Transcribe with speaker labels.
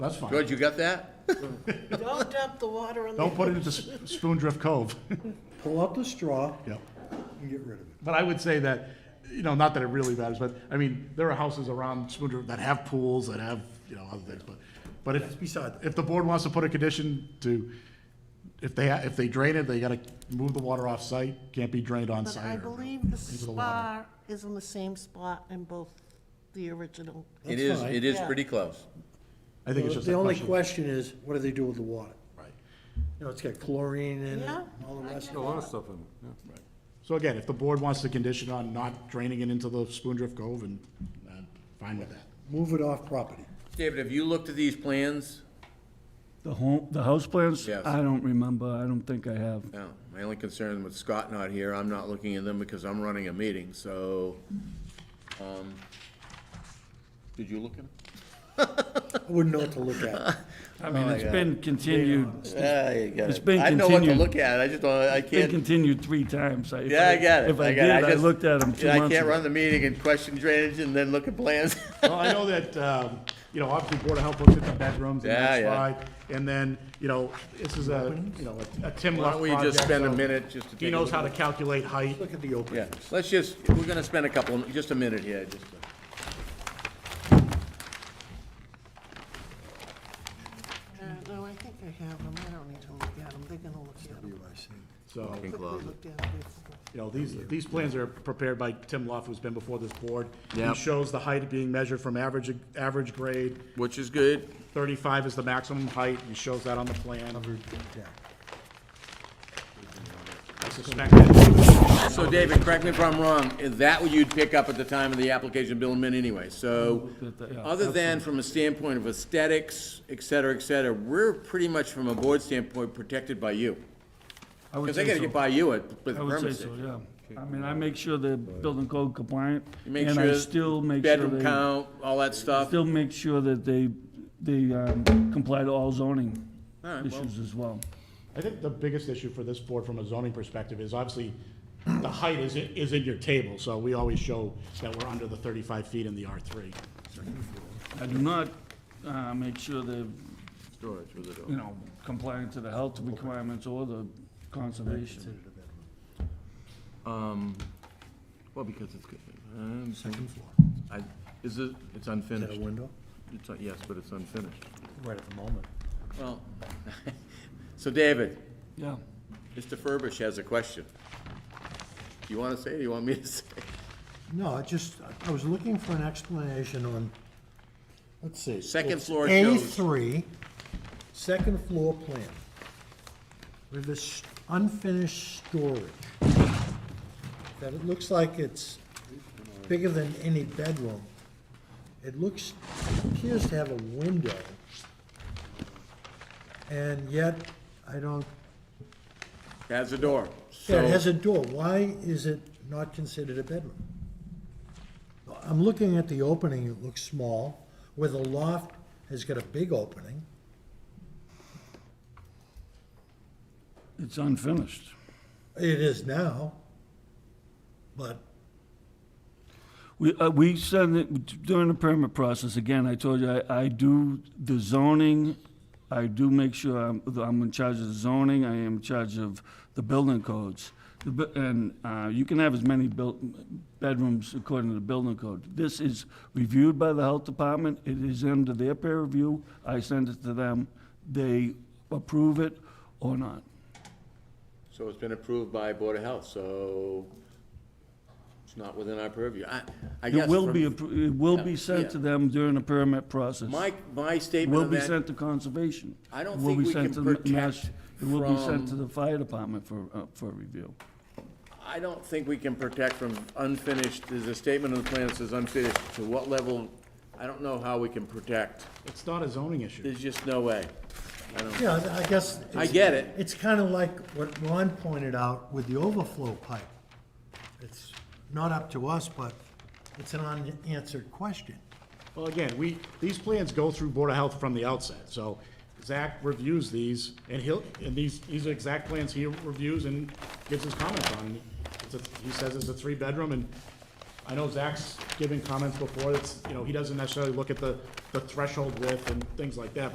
Speaker 1: That's fine.
Speaker 2: George, you got that?
Speaker 3: Don't dump the water on the.
Speaker 1: Don't put it into S- Spoon Drift Cove.
Speaker 4: Pull out the straw
Speaker 1: Yeah.
Speaker 4: and get rid of it.
Speaker 1: But I would say that, you know, not that it really matters, but, I mean, there are houses around Spoon Drift that have pools, that have, you know, other things, but, but if,
Speaker 4: beside that.
Speaker 1: if the board wants to put a condition to, if they, if they drain it, they gotta move the water off-site, can't be drained
Speaker 3: But I
Speaker 1: on-site. or-
Speaker 3: believe the
Speaker 1: into the
Speaker 3: spa
Speaker 1: water.
Speaker 3: is in the same spot in both the original.
Speaker 2: It
Speaker 4: That's
Speaker 2: is,
Speaker 4: fine.
Speaker 2: it is
Speaker 3: Yeah.
Speaker 2: pretty close.
Speaker 1: I think it's just
Speaker 4: The
Speaker 1: a
Speaker 4: only
Speaker 1: question.
Speaker 4: question is, what do they do with the water?
Speaker 1: Right.
Speaker 4: You know, it's got chlorine in it,
Speaker 3: Yeah.
Speaker 4: and all the rest
Speaker 5: Got a
Speaker 4: of
Speaker 5: lot of stuff in it, yeah.
Speaker 1: So again, if the board wants to condition on not draining it into the Spoon Drift Cove, and, uh, fine with that.
Speaker 4: it. Move it off property.
Speaker 2: David, have you looked at these plans?
Speaker 6: The home, the house plans?
Speaker 2: Yes.
Speaker 6: I don't remember, I don't think I have.
Speaker 2: No, my only concern with Scott not here, I'm not looking at them because I'm running a meeting, so, um, did you look at them?
Speaker 4: I wouldn't know what to look at.
Speaker 6: I mean,
Speaker 2: Oh,
Speaker 6: it's been continued,
Speaker 2: Yeah, Uh, you got
Speaker 6: It's been
Speaker 2: I know what to
Speaker 6: continued.
Speaker 2: look at, I just don't, I
Speaker 6: been
Speaker 2: can't,
Speaker 6: continued three times. if
Speaker 2: yeah, I got it.
Speaker 6: If I
Speaker 2: got it.
Speaker 6: did, I
Speaker 2: just-
Speaker 6: looked at them two
Speaker 2: yeah,
Speaker 6: months
Speaker 2: I can't run
Speaker 6: ago.
Speaker 2: the meeting and question drainage and then look at plans.
Speaker 1: Well, I know that, um, you know, obviously Board of Health looks at the bedrooms and
Speaker 2: Yeah,
Speaker 1: that's
Speaker 2: yeah.
Speaker 1: fine. And then, you know, this is a, you know, a- a Tim
Speaker 2: Why
Speaker 1: Luff
Speaker 2: don't we just
Speaker 1: project,
Speaker 2: spend a
Speaker 1: so
Speaker 2: minute just to take
Speaker 1: He
Speaker 2: a
Speaker 1: knows
Speaker 2: look
Speaker 1: how to calculate height.
Speaker 4: Look at the
Speaker 2: Yeah,
Speaker 4: openings.
Speaker 2: let's just, we're gonna spend a couple, just a minute here, just to.
Speaker 3: Uh, No, I think I have them. I don't need to look at them. They're gonna look at them.
Speaker 1: So,
Speaker 3: Quickly
Speaker 2: closet.
Speaker 3: looked at them before.
Speaker 1: you know, these, these plans are prepared by Tim Luff, who's been before this board. He
Speaker 2: Yep.
Speaker 1: shows the height being measured from average, average grade.
Speaker 2: Which is good.
Speaker 1: Thirty-five is the maximum height. He shows that on the plan. I suspect that-
Speaker 2: So David, correct me if I'm wrong, is that what you'd pick up at the time of the application billment anyway? So,
Speaker 6: Yeah,
Speaker 2: other than from a standpoint of aesthetics, et cetera, et cetera, we're pretty much from a board standpoint protected by you.
Speaker 6: I would
Speaker 2: Because they
Speaker 6: say
Speaker 2: gotta
Speaker 6: so.
Speaker 2: get by you at, with
Speaker 6: I
Speaker 2: the
Speaker 6: would
Speaker 2: permit.
Speaker 6: say so,
Speaker 2: stage.
Speaker 6: yeah. I mean, I make sure they're building code compliant,
Speaker 2: You make
Speaker 6: and I
Speaker 2: sure
Speaker 6: still make sure
Speaker 2: Bedroom
Speaker 6: they,
Speaker 2: count, all that stuff.
Speaker 6: still make sure that they, they um, comply to all zoning
Speaker 2: All right, well,
Speaker 6: issues as well.
Speaker 1: I think the biggest issue for this board from a zoning perspective is obviously the height is, is in your table, so we always show that we're under the thirty-five feet in the R three.
Speaker 6: I do not uh, make sure they're,
Speaker 2: storage with it all.
Speaker 6: you know, complying to the health requirements or the conservation.
Speaker 2: Well, because it's. Second floor. I, is it, it's
Speaker 4: Is that
Speaker 2: unfinished.
Speaker 4: a window?
Speaker 2: It's, un- yes, but it's unfinished.
Speaker 4: Right at the moment.
Speaker 2: Well, so David,
Speaker 6: Yeah.
Speaker 2: Mr. Furbish has a question. Do you want to say, it or do you want me to say? it?
Speaker 4: No, I just, I was looking for an explanation on, let's see.
Speaker 2: Second floor
Speaker 4: A
Speaker 2: shows,
Speaker 4: three, second floor plan. With this unfinished storage. That it looks like it's bigger than any bedroom. It looks, appears to have a window. And yet, I don't,
Speaker 2: has a door.
Speaker 4: yeah, it has
Speaker 2: So-
Speaker 4: a door. Why is it not considered a bedroom? I'm looking at the opening, it looks small, where the loft has got a big opening.
Speaker 6: It's unfinished.
Speaker 4: It is now, but
Speaker 6: We, uh, we send it, during the permit process, again, I told you, I, I do the zoning, I do make sure I'm, I'm in charge of the zoning, I am in charge of the building codes. The bu- And, uh, you can have as many built, bedrooms according to the building code. This is reviewed by the health department, it is under their peer review, I send it to them, they approve it or not.
Speaker 2: So it's been approved by Board of Health, so it's not within our purview. I, I guess.
Speaker 6: It will
Speaker 2: from-
Speaker 6: be, appro- it will be
Speaker 2: Yeah,
Speaker 6: sent to
Speaker 2: yeah.
Speaker 6: them during the permit process.
Speaker 2: My, my statement
Speaker 6: Will
Speaker 2: on
Speaker 6: be
Speaker 2: that,
Speaker 6: sent to conservation.
Speaker 2: I don't
Speaker 6: Will
Speaker 2: think
Speaker 6: be
Speaker 2: we
Speaker 6: sent
Speaker 2: can
Speaker 6: to the mass-
Speaker 2: protect
Speaker 6: It will be
Speaker 2: from-
Speaker 6: sent to the fire department for, uh, for review.
Speaker 2: I don't think we can protect from unfinished, there's a statement on the plan that says unfinished. To what level, I don't know how we can protect.
Speaker 1: It's not a zoning issue.
Speaker 2: There's just no way. I don't,
Speaker 4: yeah, I guess.
Speaker 2: I
Speaker 4: it's-
Speaker 2: get it.
Speaker 4: It's kind of like what Ron pointed out with the overflow pipe. It's not up to us, but it's an unanswered question.
Speaker 1: Well, again, we, these plans go through Board of Health from the outset, so Zach reviews these, and he'll, and these, these are exact plans he reviews and gives his comments on. It's a, he says it's a three-bedroom, and I know Zach's given comments before, it's, you know, he doesn't necessarily look at the, the threshold width and things like that,